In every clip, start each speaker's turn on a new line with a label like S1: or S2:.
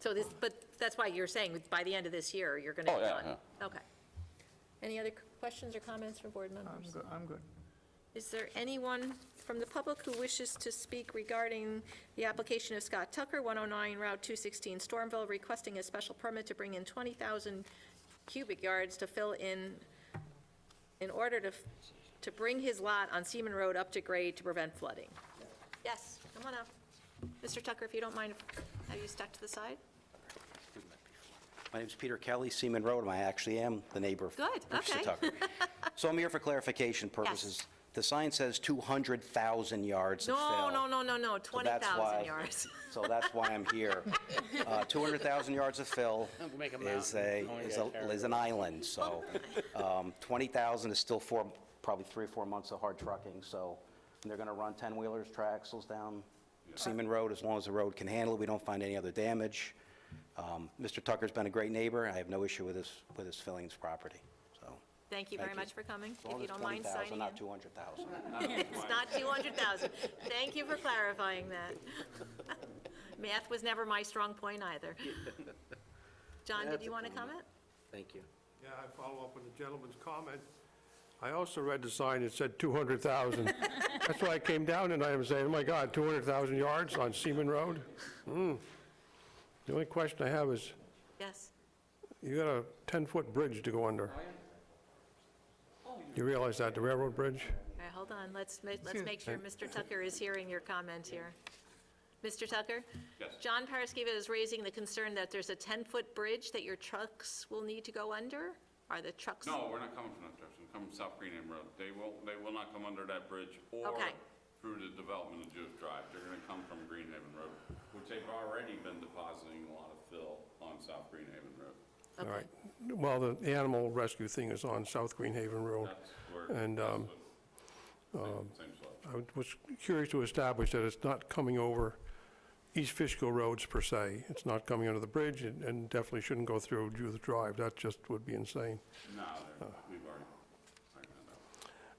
S1: So this, but that's why you're saying by the end of this year, you're going to
S2: Oh,
S1: be
S2: yeah,
S1: done? Okay. Any other questions or comments from board
S3: I'm
S1: members?
S3: good, I'm good.
S1: Is there anyone from the public who wishes to speak regarding the application of Scott Tucker, 109 Route 216, Stormville, requesting a special permit to bring in 20,000 cubic yards to fill in, in order to, f- to bring his lot on Seaman Road up to grade to prevent flooding? Yes, come on up. Mr. Tucker, if you don't mind, have you stuck to the side?
S4: My name's Peter Kelly, Seaman Road, and I actually am the neighbor of
S1: Good, okay.
S4: Mr. Tucker. So I'm here for clarification purposes. The sign says 200,000 yards of
S1: No,
S4: fill.
S1: no, no, no, no,
S4: So that's
S1: 20,000
S4: why-
S1: yards.
S4: So that's why I'm here. Uh, 200,000 yards of fill
S5: I'm gonna make a
S4: is a,
S5: mountain. I wanna
S4: is
S5: get
S4: a-
S5: carried
S4: is an island, so
S1: Oh,
S4: um, 20,000 is still four, probably three or four months of hard trucking, so and they're going to run 10-wheelers, triaxles down Seaman Road, as long as the road can handle it, we don't find any other damage. Um, Mr. Tucker's been a great neighbor, I have no issue with his, with his filling his property, so.
S1: Thank you very
S4: you.
S1: much for coming,
S4: as long
S1: if you
S4: as
S1: don't mind
S4: 20,000,
S1: signing in.
S4: Not 200,000.
S1: It's not 200,000. Thank you for clarifying that. Math was never my strong point either. John, did you want to comment?
S4: Thank you.
S6: Yeah, I follow up on the gentleman's comment. I also read the sign that said 200,000. That's why I came down and I was saying, oh my God, 200,000 yards on Seaman Road? Hmm. The only question I have is,
S1: Yes.
S6: you got a 10-foot bridge to go
S2: Oh,
S6: under. You realize that, the railroad bridge?
S1: All right, hold on, let's, ma-
S6: Hmm.
S1: let's make sure Mr. Tucker is hearing your comment here. Mr. Tucker? Yes. John Paraskeva is raising the concern that there's a 10-foot bridge that your trucks will need to go under? Are the trucks?
S2: No, we're not coming from that direction, We're coming South Greenham Road. They will, they will not come under that bridge or
S1: Okay.
S2: through the development of Jewett Drive. They're gonna come from Greenhaven Road, which they've already been depositing a lot of fill on South Greenhaven Road.
S6: All
S1: Okay.
S6: right. Well, the animal rescue thing is on South Greenhaven Road.
S2: That's where.
S6: And,
S2: that's
S6: um,
S2: what- same- Same slope.
S6: I was curious to establish that it's not coming over East Fishkill roads per se. It's not coming under the bridge and- and definitely shouldn't go through Judith Drive. That just would be insane.
S2: No, they're- we've already, ironed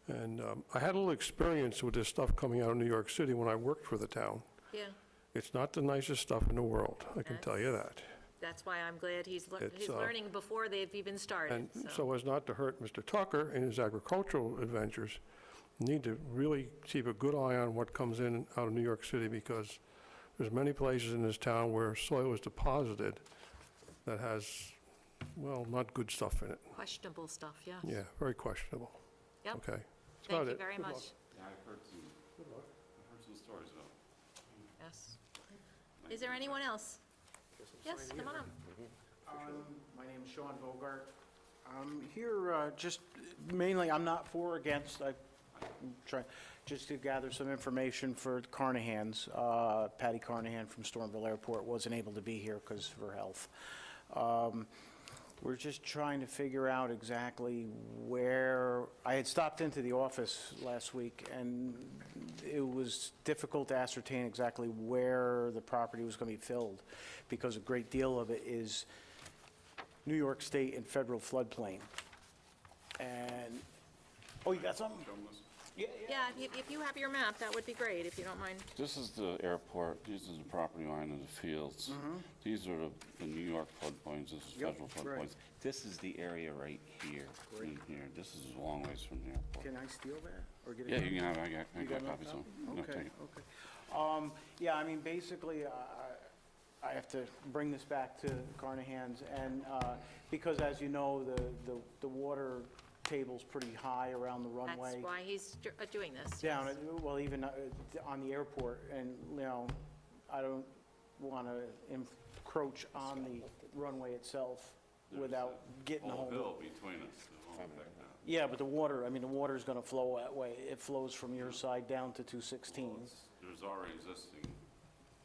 S2: that out.
S6: And um, I had a little experience with this stuff coming out of New York City when I worked for the town.
S1: Yeah,
S6: It's not the nicest stuff in the world, I can tell you that.
S1: that's why I'm glad he's, lear-
S6: It's,
S1: he's
S6: uh,
S1: learning before they've even started,
S6: And so as not to hurt Mr. Tucker in his agricultural adventures, need to really keep a good eye on what comes in out of New York City because there's many places in this town where soil is deposited that has, well, not good stuff in it.
S1: questionable stuff, yeah.
S6: Yeah, very questionable.
S1: Yep.
S6: Okay. That's
S1: Thank
S6: about
S1: you
S6: it.
S1: very
S6: Good luck.
S1: much.
S2: Yeah, I've heard some, I've heard some stories about it.
S1: Yes. Is there anyone else? Yes, come on up.
S7: Um, My name's Sean Bogart. I'm here uh, just mainly, I'm not for or against, I try, just to gather some information for the Carnahans. Uh, Patty Carnahan from Stormville Airport wasn't able to be here because of her health. Um, We're just trying to figure out exactly where, I had stopped into the office last week, and it was difficult to ascertain exactly where the property was going to be filled, because a great deal of it is New York State and federal floodplain. And, oh, you got something? Yeah, yeah.
S1: Yeah, if you- if you have your map, that would be great, if you don't mind.
S2: This is the airport, these are the property line of the fields. These are the, the New York floodplains, this is
S7: Mm-hmm. Yep,
S2: federal
S7: right.
S2: floodplains. This is the area right here, in here, this is a long ways from the airport.
S7: Can I steal that? Or get it?
S2: Yeah, you can have, I got, I
S7: You
S2: got
S7: got
S2: copies
S7: enough?
S2: of them. No,
S7: Okay,
S2: take it.
S7: okay. Um, yeah, I mean, basically, I, I- I have to bring this back to Carnahan's, and, uh, because as you know, the, the, the water table's pretty high around the
S1: That's
S7: runway.
S1: why he's dr- uh, doing this.
S7: Down,
S1: yes.
S7: at- well, even uh, on the airport, and, you know, I don't want to encroach on the runway itself without getting a
S2: Whole
S7: hold of
S2: bill between us, the whole thing now.
S7: Yeah, but the water, I mean, the water's going to flow that way. It flows from your side down to 216.
S2: There's already existing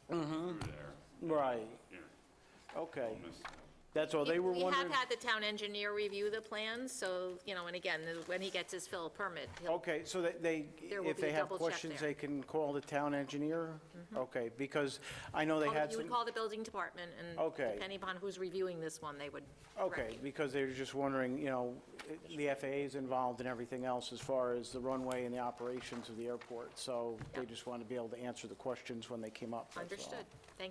S2: through there,
S7: Mm-hmm. Right,
S2: here,
S7: okay.
S2: miss that.
S7: That's all, they were
S1: We-
S7: wondering.
S1: We have had the town engineer review the plans, so, you know, and again, the- when he gets his fill permit, he'll,
S7: Okay, so that they,
S1: There will
S7: if
S1: be
S7: they
S1: a
S7: have
S1: double check
S7: questions,
S1: there.
S7: they can call the town engineer? Okay, because I know they had
S1: you would
S7: some,
S1: call the building department, and
S7: Okay.
S1: depending upon who's reviewing this one, they would.
S7: okay,
S1: direct you.
S7: because they were just wondering, you know, the FAA is involved in everything else as far as the runway and the operations of the airport, so they
S1: Yeah.
S7: just wanted to be able to answer the questions when they came up. that's all.
S1: Understood. Thank